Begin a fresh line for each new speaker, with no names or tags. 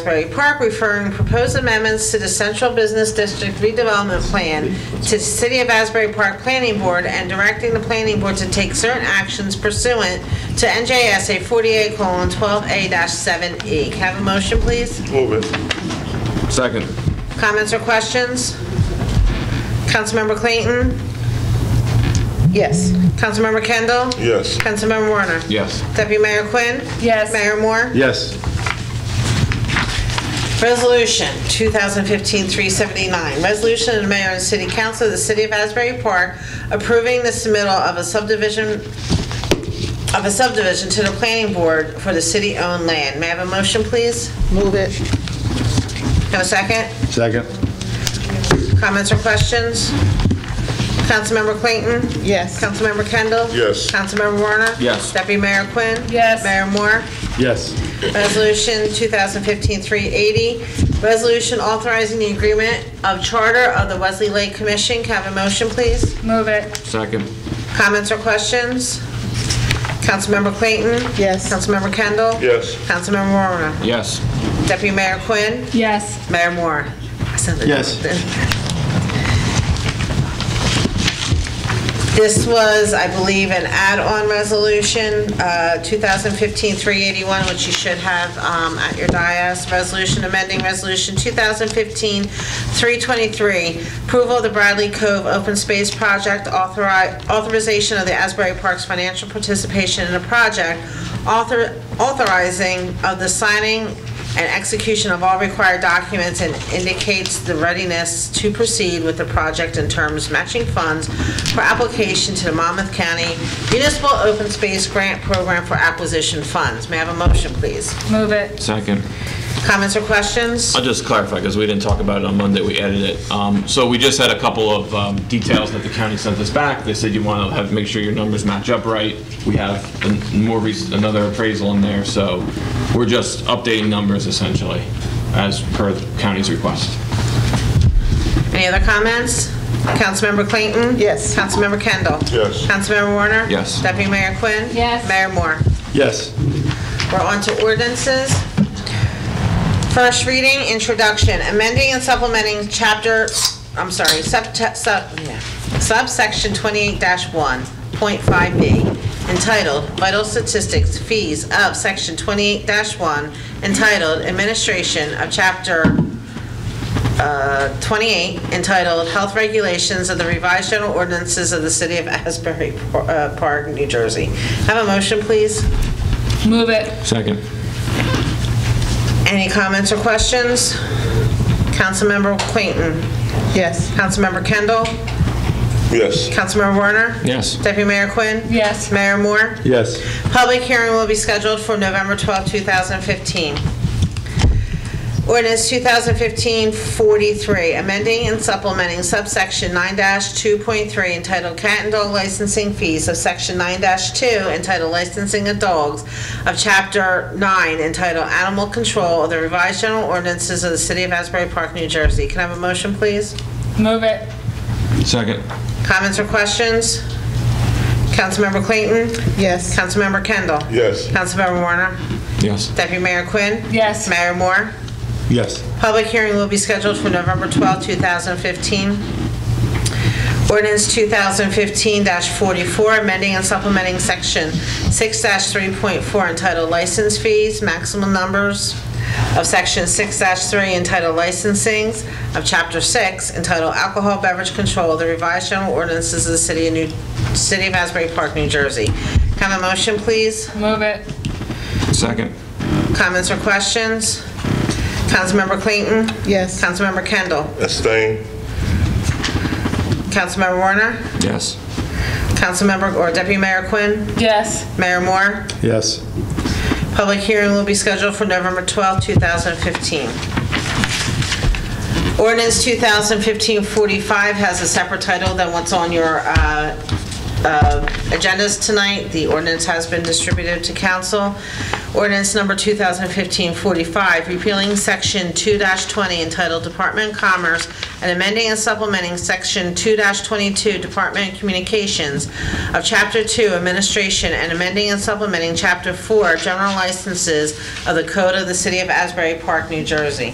Asbury Park referring proposed amendments to the Central Business District redevelopment plan to the City of Asbury Park Planning Board and directing the planning board to take certain actions pursuant to NJSA 48:12A-7E. E. Can I Have a motion, please?
Move it.
Second.
Comments or questions? Councilmember Clayton? Yes. Councilmember Kendall?
Yes.
Councilmember Warner?
Yes.
Deputy Mayor Quinn?
Yes.
Mayor Moore?
Yes.
Resolution 2015-379, resolution of the mayor and city council of the city of Asbury Park approving the submittal of a subdivision, of a subdivision to the planning board for the city-owned land. May I have a motion, please?
Move it.
No second?
Second.
Comments or questions? Councilmember Clayton?
Yes.
Councilmember Kendall?
Yes.
Councilmember Warner?
Yes.
Deputy Mayor Quinn?
Yes.
Mayor Moore?
Yes.
Resolution 2015-380, resolution authorizing the agreement of charter of the Wesley Lake Commission. Can I have a motion, please?
Move it.
Second.
Comments or questions? Councilmember Clayton?
Yes.
Councilmember Kendall?
Yes.
Councilmember Warner?
Yes.
Deputy Mayor Quinn?
Yes.
Mayor Moore? I sounded
Yes.
like that. This was, I believe, an add-on resolution, uh, 2015-381, which you should have um, at your dais. Resolution amending Resolution 2015-323, approval of the Bradley Cove Open Space Project, authori- authorization of the Asbury Parks financial participation in a project, author authorizing of the signing and execution of all required documents and indicates the readiness to proceed with the project in terms of matching funds for application to the Monmouth County Municipal Open Space Grant Program for Acquisition Funds. May I have a motion, please?
Move it.
Second.
Comments or questions?
I'll just clarify, because we didn't talk about it on Monday, we added it. Um, So we just had a couple of um, details that the county sent us back. They said you want to have, make sure your numbers match up right. We have an- more recent, another appraisal in there, so we're just updating numbers essentially, as per the county's request.
Any other comments? Councilmember Clayton?
Yes.
Councilmember Kendall?
Yes.
Councilmember Warner?
Yes.
Deputy Mayor Quinn?
Yes.
Mayor Moore?
Yes.
We're on to ordinances. First reading, introduction, amending and supplementing chapter, I'm sorry, sub, sub, yeah, subsection 28-1.5B, entitled Vital Statistics Fees of Section 28-1, entitled Administration of Chapter uh, 28, entitled Health Regulations of the Revised General Ordinances of the City of Asbury uh, Park, New Jersey. Have a motion, please?
Move it.
Second.
Any comments or questions? Councilmember Clayton?
Yes.
Councilmember Kendall?
Yes.
Councilmember Warner?
Yes.
Deputy Mayor Quinn?
Yes.
Mayor Moore?
Yes.
Public hearing will be scheduled for November 12, 2015. Ordinance 2015-43, amending and supplementing subsection 9-2.3 entitled Cat and Dog Licensing Fees of Section 9-2 entitled Licensing of Dogs of Chapter 9 entitled Animal Control of the Revised General Ordinances of the City of Asbury Park, New Jersey. Can I have a motion, please?
Move it.
Second.
Comments or questions? Councilmember Clayton?
Yes.
Councilmember Kendall?
Yes.
Councilmember Warner?
Yes.
Deputy Mayor Quinn?
Yes.
Mayor Moore?
Yes.
Public hearing will be scheduled for November 12, 2015. Ordinance 2015-44, amending and supplementing Section 6-3.4 entitled License Fees, Maximum Numbers of Section 6-3 entitled Licensings of Chapter 6 entitled Alcohol Beverage Control, the revised general ordinances of the City of New, City of Asbury Park, New Jersey. Can I have a motion, please?
Move it.
Second.
Comments or questions? Councilmember Clayton?
Yes.
Councilmember Kendall?
Abstain.
Councilmember Warner?
Yes.
Councilmember, or Deputy Mayor Quinn?
Yes.
Mayor Moore?
Yes.
Public hearing will be scheduled for November 12, 2015. Ordinance 2015-45 has a separate title than what's on your uh, uh, agendas tonight. The ordinance has been distributed to council. Ordinance number 2015-45, repealing Section 2-20 entitled Department of Commerce and amending and supplementing Section 2-22 Department of Communications of Chapter 2 Administration and amending and supplementing Chapter 4 General Licenses of the Code of the City of Asbury Park, New Jersey.